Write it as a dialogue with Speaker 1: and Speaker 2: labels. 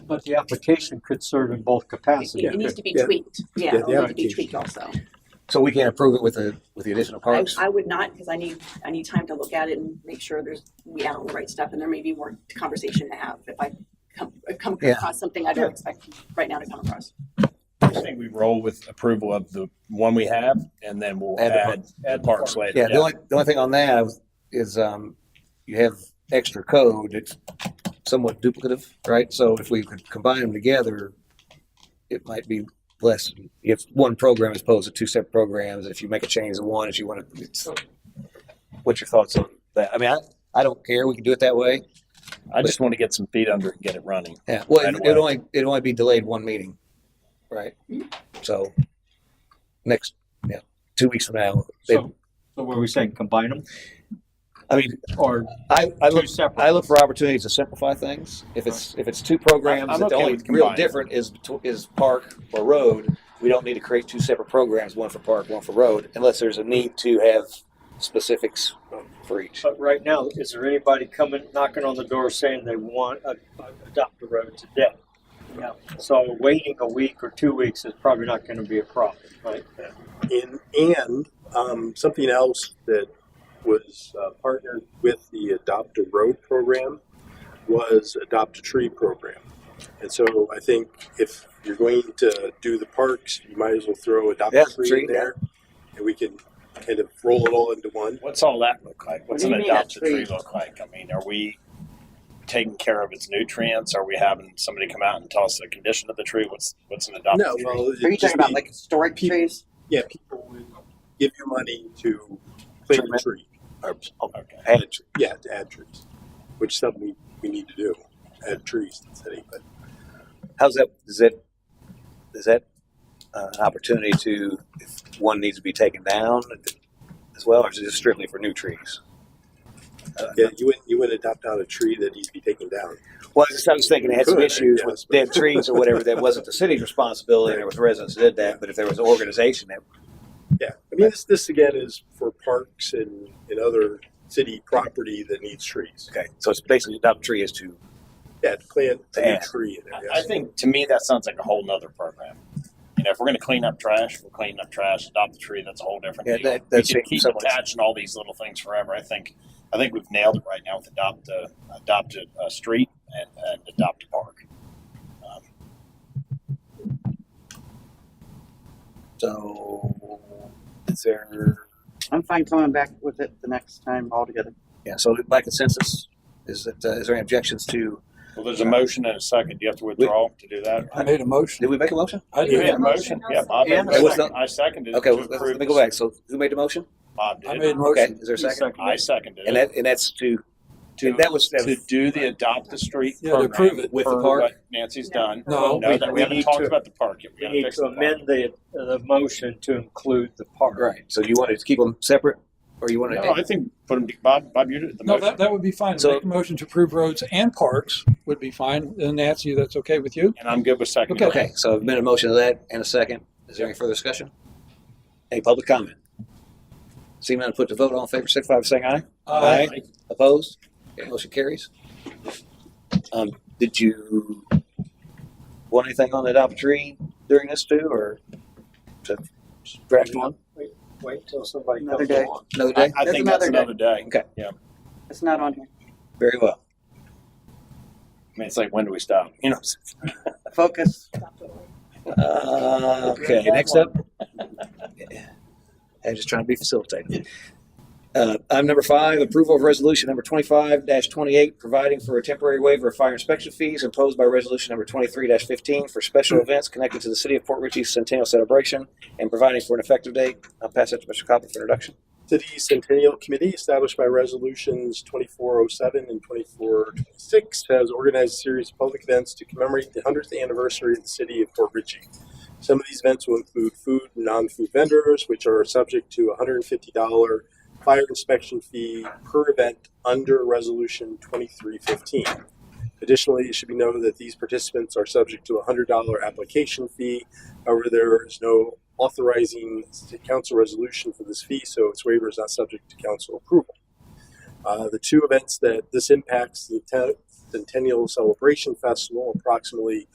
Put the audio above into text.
Speaker 1: But the application could serve in both
Speaker 2: It it
Speaker 1: capacities.
Speaker 2: needs to be
Speaker 3: Yeah.
Speaker 2: tweaked.
Speaker 3: Yeah,
Speaker 2: Yeah, it
Speaker 3: the
Speaker 2: needs to be
Speaker 3: application.
Speaker 2: tweaked also.
Speaker 3: So we can't approve it with the, with the additional
Speaker 2: I,
Speaker 3: parks?
Speaker 2: I would not, because I need, I need time to look at it and make sure there's, we add all the right stuff, and there may be more conversation to have if I come, come
Speaker 3: Yeah.
Speaker 2: across something I don't expect right now to come across.
Speaker 4: I think we roll with approval of the one we have and then we'll
Speaker 3: Add the
Speaker 4: add, add parks later.
Speaker 3: Yeah, the only, the only thing on that is, um, you have extra code, it's somewhat duplicative, right? So if we could combine them together, it might be less, if one program as opposed to two separate programs, if you make a change to one, if you want to, it's, what's your thoughts on that? I mean, I, I don't care, we can do it that way.
Speaker 4: I just want to get some feet under and get it running.
Speaker 3: Yeah, well,
Speaker 4: Right
Speaker 3: it- it'd
Speaker 4: away.
Speaker 3: only, it'd only be delayed one meeting, right? So, next, yeah, two weeks from now, they-
Speaker 1: So so were we saying combine them
Speaker 3: I mean,
Speaker 1: or
Speaker 3: I, I look
Speaker 1: two separate?
Speaker 3: I look for opportunities to simplify things. If it's if it's two programs,
Speaker 4: I'm
Speaker 3: that the
Speaker 4: okay
Speaker 3: only
Speaker 4: with
Speaker 3: real
Speaker 4: combining.
Speaker 3: different is betw- is park or road. We don't need to create two separate programs, one for park, one for road, unless there's a need to have specifics for each.
Speaker 1: But right now, is there anybody coming, knocking on the door saying they want to adopt a road today? Yeah. So waiting a week or two weeks is probably not going to be a problem, right?
Speaker 5: And, and um, something else that was uh, partnered with the Adopt a Road program was Adopt a Tree program. And so I think if you're going to do the parks, you might as well throw Adopt
Speaker 3: Yeah,
Speaker 5: a Tree,
Speaker 3: tree,
Speaker 5: in there, and we can kind of roll it all into one.
Speaker 4: What's all that look like? What's
Speaker 2: What
Speaker 4: an
Speaker 2: do you mean,
Speaker 4: adopted
Speaker 2: a tree?
Speaker 4: tree look like? I mean, are we taking care of its nutrients? Are we having somebody come out and tell us the condition of the tree? What's, what's an adopted
Speaker 5: No,
Speaker 4: tree?
Speaker 5: well, it'd
Speaker 6: Are you
Speaker 5: just
Speaker 6: talking about
Speaker 5: be-
Speaker 6: like historic
Speaker 5: people-
Speaker 6: trees?
Speaker 5: yeah, people would give you money to plant a tree.
Speaker 3: oh,
Speaker 4: Okay.
Speaker 5: Add a tree. Yeah, to add trees, which is something we, we need to do. Add trees to the city, but
Speaker 3: How's that? Is that is that uh, an opportunity to if one needs to be taken down as well, or is it just strictly for new trees?
Speaker 5: Yeah, you wouldn't you wouldn't adopt out a tree that needs to be taken down.
Speaker 3: Well, I was, I was thinking it had some
Speaker 5: Could,
Speaker 3: issues
Speaker 5: yes,
Speaker 3: with
Speaker 5: but-
Speaker 3: dead trees or whatever. That wasn't the city's responsibility. There was residents that did that, but if there was an organization that
Speaker 5: Yeah, I mean this this again is for parks and, and other city property that needs trees.
Speaker 3: Okay, so it's basically adopt tree is to
Speaker 5: Yeah, to plant a
Speaker 3: Yeah.
Speaker 5: new tree in there.
Speaker 4: I- I
Speaker 5: Yes.
Speaker 4: think to me that sounds like a whole nother program. You know, if we're going to clean up trash, we're cleaning up trash. Adopt a tree. That's a whole different
Speaker 3: Yeah,
Speaker 4: deal.
Speaker 3: that-
Speaker 4: we
Speaker 3: that
Speaker 4: can
Speaker 3: seems
Speaker 4: keep
Speaker 3: somewhat-
Speaker 4: attaching all these little things forever. I think, I think we've nailed it right now with adopt a adopt a, a street and, and adopt a park. Um,
Speaker 3: so is there
Speaker 6: I'm fine coming back with it the next time altogether.
Speaker 3: yeah. So by consensus, is it uh, is there any objections to?
Speaker 4: well, there's a motion and a second. Do you have to withdraw to do that? Oh,
Speaker 7: I made a motion.
Speaker 3: Did we make a motion?
Speaker 7: I
Speaker 4: You
Speaker 7: did.
Speaker 4: made a motion. Yeah, Bob. made a
Speaker 1: And a
Speaker 4: motion.
Speaker 3: second.
Speaker 4: I seconded. it
Speaker 3: Okay,
Speaker 4: to
Speaker 3: let,
Speaker 4: approve
Speaker 3: let me go
Speaker 4: this.
Speaker 3: back. So who made the motion?
Speaker 4: Bob
Speaker 7: I
Speaker 4: did.
Speaker 7: made a
Speaker 3: Okay,
Speaker 7: motion.
Speaker 3: is there a second?
Speaker 4: I seconded.
Speaker 3: And
Speaker 4: it.
Speaker 3: that and that's to
Speaker 4: to
Speaker 3: that was that
Speaker 4: to
Speaker 3: was,
Speaker 4: do the adopt the street
Speaker 7: Yeah, to
Speaker 4: program
Speaker 7: approve it.
Speaker 3: With the
Speaker 4: per
Speaker 3: park?
Speaker 4: what Nancy's done.
Speaker 7: No.
Speaker 4: No,
Speaker 1: We-
Speaker 4: that-
Speaker 1: we
Speaker 4: we haven't
Speaker 1: need
Speaker 4: talked
Speaker 1: to-
Speaker 4: about the park yet. We
Speaker 1: We
Speaker 4: gotta
Speaker 1: need
Speaker 4: fix
Speaker 1: to
Speaker 4: the park.
Speaker 1: amend the, the motion to include the park.
Speaker 3: right. So you wanted to keep them separate, or you wanted
Speaker 4: No, I think put them, Bob, Bob, you did the
Speaker 7: No,
Speaker 4: motion.
Speaker 7: that, that would be fine.
Speaker 3: So-
Speaker 7: Make a motion to approve roads and parks would be fine. And Nancy, that's okay with you?
Speaker 4: And I'm good with second.
Speaker 7: Okay.
Speaker 3: okay? So I've made a motion to that and a second. Is there any further discussion? Any public comment? Seeing none, put to vote. All in favor, signify by saying aye.
Speaker 7: uh,
Speaker 3: Aye. Opposed? Motion carries. Um, did you want anything on the adopt a tree during this too, or to draft one
Speaker 1: Wait till somebody
Speaker 6: Another
Speaker 1: comes
Speaker 6: day.
Speaker 1: along.
Speaker 3: another
Speaker 4: I,
Speaker 3: day?
Speaker 4: I
Speaker 6: That's
Speaker 4: think that's
Speaker 6: another day.
Speaker 4: another day.
Speaker 3: Okay.
Speaker 4: Yeah. I
Speaker 6: It's not on here.
Speaker 3: Very well.
Speaker 4: mean, it's like, when do we stop? You know, what I'm
Speaker 6: Focus.
Speaker 3: Uh, okay, next up. I'm just trying to be facilitated. Uh, item number five, approval of resolution number twenty-five twenty-eight, providing for a temporary waiver of fire inspection fees imposed by resolution number twenty-three fifteen for special events connected to the city of Port Ritchie's centennial celebration and providing for an effective date. I'll pass it to Mr. Copper for introduction.
Speaker 5: City Centennial Committee, established by resolutions 2407 and 2426, has organized a series of public events to commemorate the 100th anniversary of the city of Port Ritchie. Some of these events will include food and non-food vendors, which are subject to a $150 fire inspection fee per event under Resolution 2315. Additionally, it should be noted that these participants are subject to a $100 application fee. However, there is no authorizing the council resolution for this fee, so its waiver is not subject to council approval. Uh, the two events that this impacts, the te- Centennial Celebration Festival approximately